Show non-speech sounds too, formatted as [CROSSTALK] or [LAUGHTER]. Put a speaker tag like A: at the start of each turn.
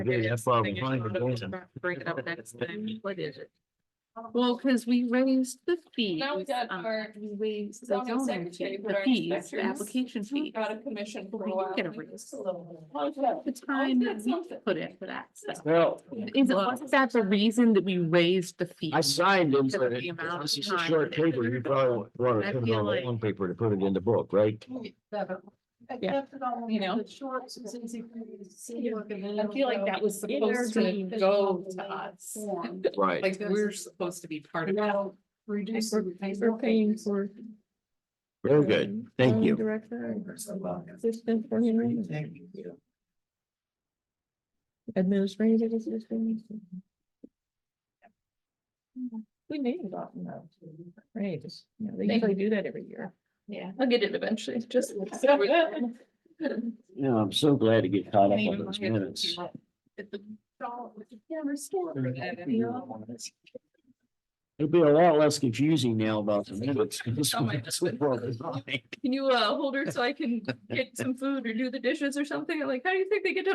A: Yeah, that's why I'm
B: Bring
A: trying to go
B: it
A: in.
B: up- bring it up next time.
C: What is it?
B: Well, because we raised the fees.
D: Now we got
B: um,
D: our
B: We raised the
D: zoning
B: zoning
D: secretary
B: fee,
D: with
B: the
D: our
B: fees, the
D: inspectors.
B: application fee.
D: Got a commission for a
B: We
D: while.
B: didn't get a raise.
D: How's that?
B: The time
D: got
B: that we
D: something.
B: put in for that, so.
A: Well,
B: Is it, was that the reason that we raised the fee?
A: I signed him,
B: Because
A: but
B: of the
A: it-
B: amount
A: it's
B: of
A: just a
B: time.
A: short paper, you probably want
B: I
A: to put it
B: feel
A: on the
B: like-
A: long paper to put it in the
B: [LAUGHS]
A: book, right?
B: Yeah. You know?
C: I
D: I feel like that was supposed to go to us.
A: Right.
D: Like we're supposed to be part of. it.
C: Now, reduce.
D: We're- we're paying
C: for.
A: Very good, thank you.
C: Director. Assistant for him. Administrative assistant. We made a lot in that. Right, just, you know, they usually do that every year.
D: Yeah.
C: I'll get it eventually, just.
A: Yeah, I'm so glad to get caught up
B: Maybe
A: on
B: we'll
A: those
B: get
A: minutes.
B: to
A: It'll be a lot less confusing now about the
B: [LAUGHS]
A: minutes. 'cause this [LAUGHS] one- this one was mine.
C: Can you uh hold her so I can get some food or do the dishes or something? I'm like, how do you think they get done?